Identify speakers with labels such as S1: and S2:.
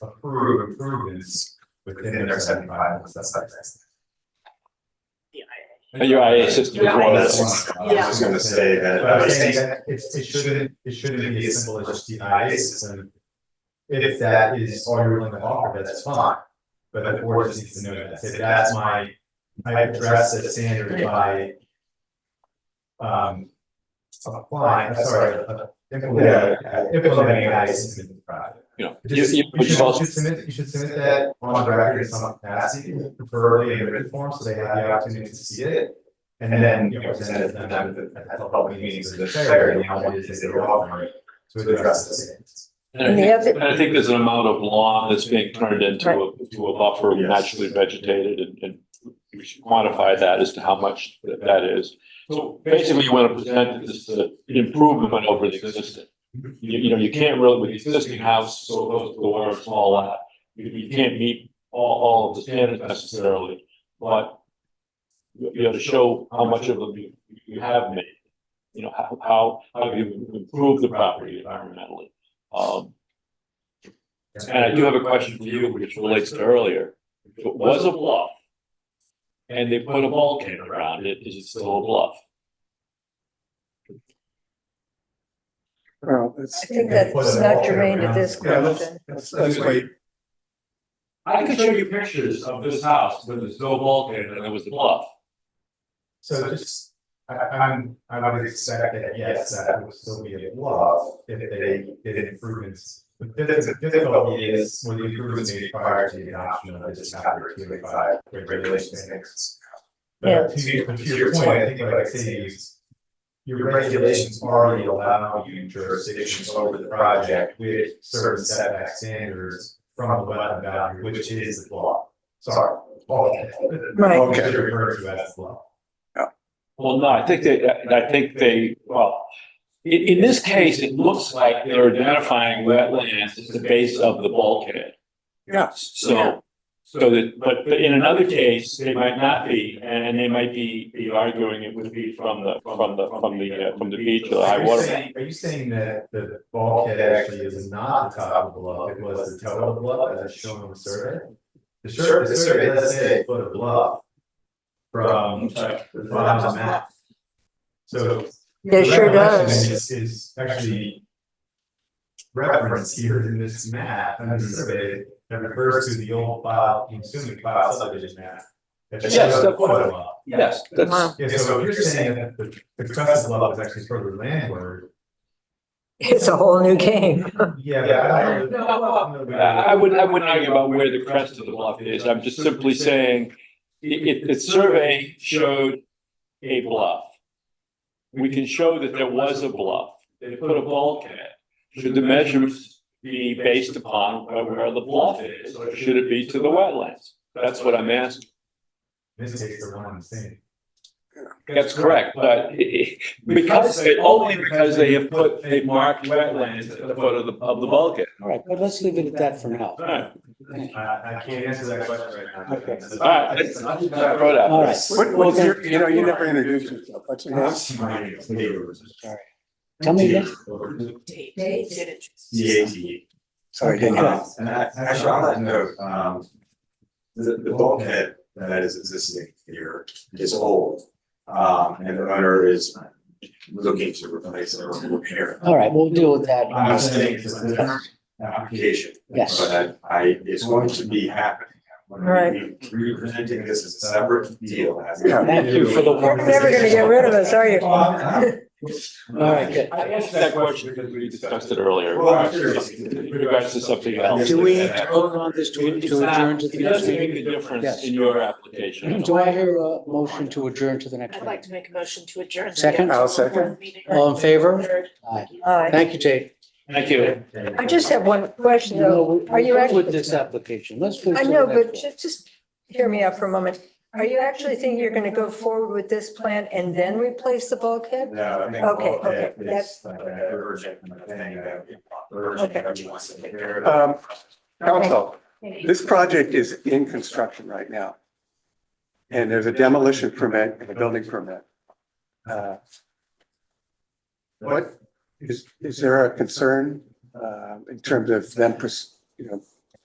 S1: approve improvements within their seventy-five, because that's not next.
S2: But Your IA system is one
S1: That's
S2: that's,
S1: one.
S3: Yeah.
S1: I was gonna say that.
S4: But
S1: I
S4: I'm
S1: was
S4: saying
S1: saying that it, it shouldn't, it shouldn't be as simple as just the IA system. If that is all you're willing to offer, that's fine, but the board just needs to know that, if that's my, I address the standard by. Um. Applying, I'm sorry, uh, implementing, implementing an IA system in the project.
S2: you know, you,
S1: Just-
S2: you,
S1: You
S2: but you've
S1: should, you
S2: also,
S1: should submit, you should submit that on the record in some capacity, preferably in written form, so they have the opportunity to see it. And then, you know, present it to them at the at the public meetings of the fair, and how it is that you're offering to address this.
S2: and I
S3: And they
S2: think-
S3: have it-
S2: and I think there's an amount of lawn that's being turned into a, to a buffer
S4: Yes.
S2: naturally vegetated and, and we should quantify that as to how much that that is. So basically, you want to present this uh, improvement over the existing. You, you know, you can't really, with the existing house, so those doors and all that, you, you can't meet all, all of the standards necessarily, but you, you got to show how much of them you, you have made. You know, how, how, how you improve the property environmentally. Um, and I do have a question for you, which relates to earlier. If it was a bluff and they put a bulkhead around it, is it still a bluff?
S5: Well,
S3: I
S5: it's,
S3: think that's not germane to this
S4: Yeah, let's-
S3: question.
S4: let's, let's wait.
S2: I can show you pictures of this house where there's no bulkhead and it was a bluff.
S1: So just, I, I'm, I would expect that, yes, that would still be a bluff if they did improvements. But the the difficulty is when the improvements made prior to the adoption of the chapter two eight five regulations next.
S3: Yeah.
S1: But to your, to your point, I think what I say is. Your regulations already allow you jurisdictions over the project with certain setback standards from the wetland boundary, which is the law. Sorry.
S3: Right.
S1: Which is referred to as the law.
S2: Well, no, I think they, I think they, well, in, in this case, it looks like they're identifying wetlands as the base of the bulkhead.
S5: Yeah.
S3: Yeah.
S2: So, so that, but, but in another case, they might not be, and they might be, be arguing it would be from the, from the, from the, uh, from the beach or the
S1: Are
S2: high
S1: you
S2: water. mark.
S1: saying- Are you saying that the bulkhead actually is not the top of the bluff, it was the toe of the bluff as shown on the survey? The survey, the survey does say a foot of bluff. From the bottom of the map, so.
S3: It
S1: the
S3: sure
S1: recollection
S3: does.
S1: Is is actually. Referenced here in this map, and this survey that refers to the old file, consuming file subdivision map. that
S2: Yes,
S1: shows the
S2: that's
S1: foot
S2: what-
S1: of bluff.
S2: Yes, that's,
S3: Wow.
S1: Yeah, so if you're saying that the, the crest of bluff is actually further landward,
S3: It's a whole new game.
S1: Yeah.
S2: but I I, I would, I wouldn't argue about where the crest of the bluff is, I'm just simply saying, i- if, the survey showed a bluff. We can show that there was a bluff, they put a bulkhead, should the measurements be based upon where- where the bluff is, or should it be to the wetlands? That's what I'm asking.
S1: This takes the one and the same.
S2: That's correct, but i- i- because, they- only because they have put, they marked wetlands at the foot of the, of the bulkhead.
S5: all right, but let's leave it at that for now.
S2: Alright,
S1: I, I can't answer that question right now.
S5: Okay.
S2: alright, that's, I brought up.
S5: All right.
S4: What-
S5: Well,
S4: what's your-
S5: you know, you never introduced yourself. What's your name?
S1: That's my neighbors.
S5: Tell me again.
S4: Yeah, yeah.
S5: Sorry, didn't hear.
S4: Um, And I, actually, on that note, um, the, the bulkhead that is existing here is old. Um, and the owner is looking to replace or repair.
S5: All right, we'll deal with that.
S4: I'm saying it's a different application.
S5: Yes.
S4: But I, it's going to be happening. When we-
S3: Right.
S4: Representing this as a separate deal. as-
S5: Yeah. Thank you for the
S3: You're
S5: work.
S3: never gonna get rid of us, are you?
S4: Well, I'm-
S5: All right, good.
S2: I asked that question because we discussed it earlier.
S4: Well, I'm curious.
S2: In regards to something else.
S5: Do we vote on this to
S2: It's
S5: to adjourn
S2: not-
S5: to the
S2: It
S5: next
S2: doesn't make a
S5: meeting?
S2: difference
S5: Yes.
S2: in your application.
S5: Do I hear a motion to adjourn to the next
S6: I'd like
S5: meeting?
S6: to make a motion to adjourn.
S5: Second? I'll second. All in favor? Aye.
S3: Aye.
S5: Thank you, Jake.
S2: Thank you.
S3: I just have one question
S5: You know,
S3: though.
S5: we-
S3: Are you
S5: we're done With
S3: actually,
S5: this application, let's. move
S3: I
S5: to the
S3: know,
S5: next
S3: but
S5: one.
S3: just, just hear me out for a moment. Are you actually thinking you're gonna go forward with this plan and then replace the bulkhead?
S4: No, I think.
S3: Okay,
S4: bulkhead
S3: okay,
S4: is
S3: that's-
S4: like an urgent thing that urgent,
S3: Okay.
S4: everyone wants to take care of.
S7: Um, council, this project is in construction right now. And there's a demolition permit and a building permit. Uh, What, is, is there a concern, uh, in terms of them, pers- you know,